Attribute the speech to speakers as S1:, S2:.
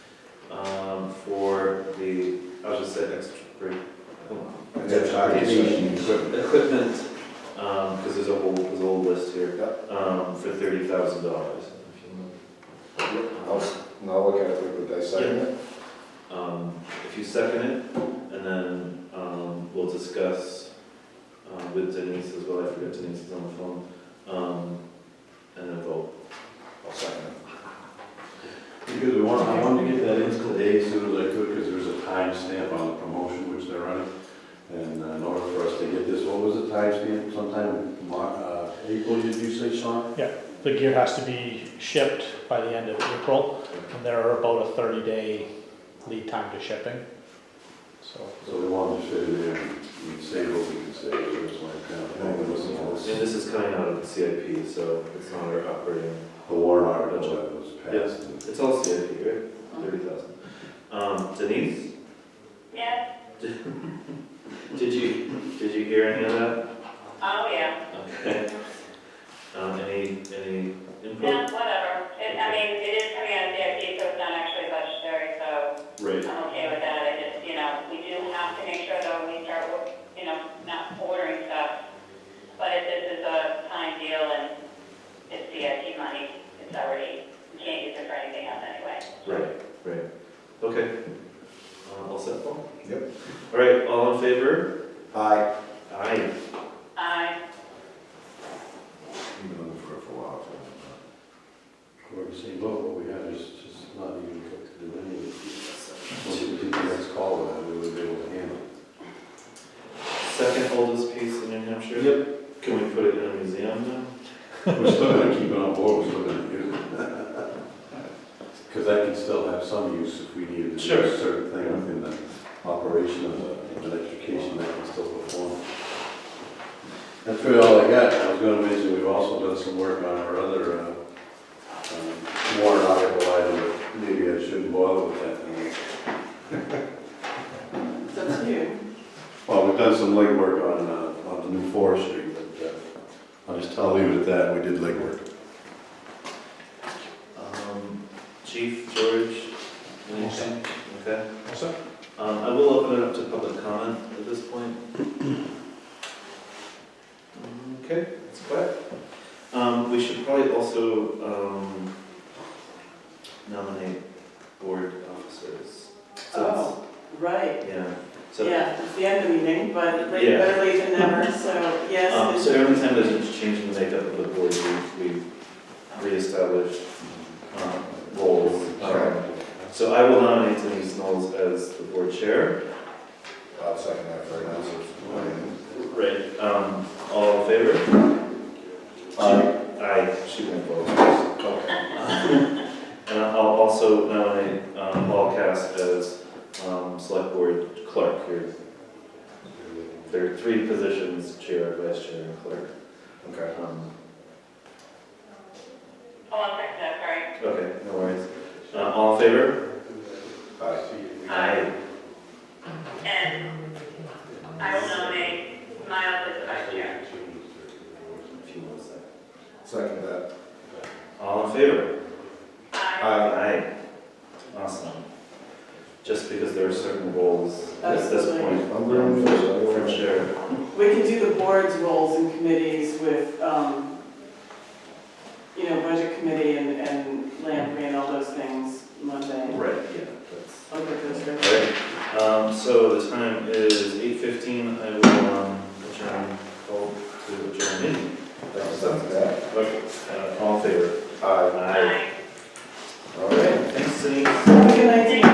S1: um, I was just saying extra free.
S2: And that's our decision.
S1: uh, Equipment, um, because there's a whole, there's a whole list here, um, for thirty thousand dollars.
S2: I'll, I'll look at it, but they second it.
S1: Um, if you second it, and then, um, we'll discuss, um, with Denise as well, I forget Denise is on the phone, um, and then vote.
S2: I'll second it.
S3: Because we want, I wanted to get that in today as soon as I could, because there's a time stamp on the promotion which they're running. And uh, in order for us to get this, what was the time stamp? sometime, Mar- uh, April, did you say, Sean?
S4: The gear has to be shipped by the end of April, and there are about a thirty-day lead time to shipping. So,
S3: So we wanted to fit it in, we can save what we can save, so it's like, uh, I think it was
S1: And
S3: the-
S1: this is coming out of the CIP, so it's not our operating,
S3: the warrant article that was passed. and-
S1: it's all CIP, right? Thirty thousand. Um, Denise,
S5: Yes,
S1: did you, did you hear any of that?
S5: oh, yeah,
S1: Okay. Um, any, any
S5: yeah,
S1: input?
S5: whatever. It, I mean, it is coming out of CIP, so it's not actually budgetary, so
S1: Right.
S5: I'm okay with that. I just, you know, we do have to make sure though, we start, with, you know, not ordering stuff. But if this is a time deal and it's CIP money, it's already, we can't use it for anything else anyway.
S1: Right, right. Okay. Uh, all set, Paul?
S2: Yep.
S1: All right, all in favor?
S2: Aye.
S1: Aye.
S5: I,
S2: You've been looking for it for a while,
S3: We're the same boat, what we have is just not even cooked to do any of it. Once we get the next call, uh, we would be able to handle it.
S1: Second oldest piece in New Hampshire? Yep. Can we put it in a museum now?
S3: We're still gonna keep it on board, we're still gonna use it. Because that can still have some use if we needed to do
S1: Sure.
S3: a certain thing within the operation of the electrification, that can still perform. That's really all I got. I was gonna mention, we've also done some work on our other, uh, um, warrant article item, but maybe I shouldn't bother with that.
S6: That's new.
S3: Well, we've done some legwork on, uh, on the new forestry, but, uh, I'll just, I'll leave it at that, we did legwork.
S1: Um, Chief, George, anything? Okay.
S4: also,
S1: Um, I will open it up to public comment at this point. Okay, it's quiet. Um, we should probably also, um, nominate board officers. So
S6: Oh, right.
S1: it's- Yeah, so,
S6: Yeah, it's the end of the meeting, but late-
S1: Yeah.
S6: better late than never, so
S1: um,
S6: yes.
S1: so
S6: it-
S1: every time there's a change in the makeup of the board, we, we reestablish, um, roles. Um, So I will nominate Denise Knowles as the board chair.
S2: I'll second that for now.
S1: Right. Um, all in favor?
S2: Aye.
S1: Aye, she won't vote.
S2: Okay.
S1: And I'll also nominate um, Paul Cass as um, select board clerk here. There are three positions, chair, vice chair, and clerk.
S2: Okay.
S1: Um,
S5: hold on a second, though, sorry.
S1: Okay, no worries. Uh, All in favor?
S2: Aye.
S5: Aye. And I will nominate Miles as the vice chair.
S1: If you want to say.
S2: Second that.
S1: All in favor?
S5: I,
S2: Aye.
S1: Aye. Awesome. Just because there are certain roles at this
S6: Absolutely.
S1: point.
S2: I'm going to-
S1: For chair.
S6: We can do the board's roles and committees with, um, you know, budget committee and, and land grant, all those things Monday.
S1: Right, yeah, that's.
S6: I'll get those ready.
S1: Right, um, so the time is eight fifteen, I will, um, adjourn, call to adjourn meeting.
S2: Second that.
S1: Okay, uh, all in favor?
S2: Aye.
S1: Aye.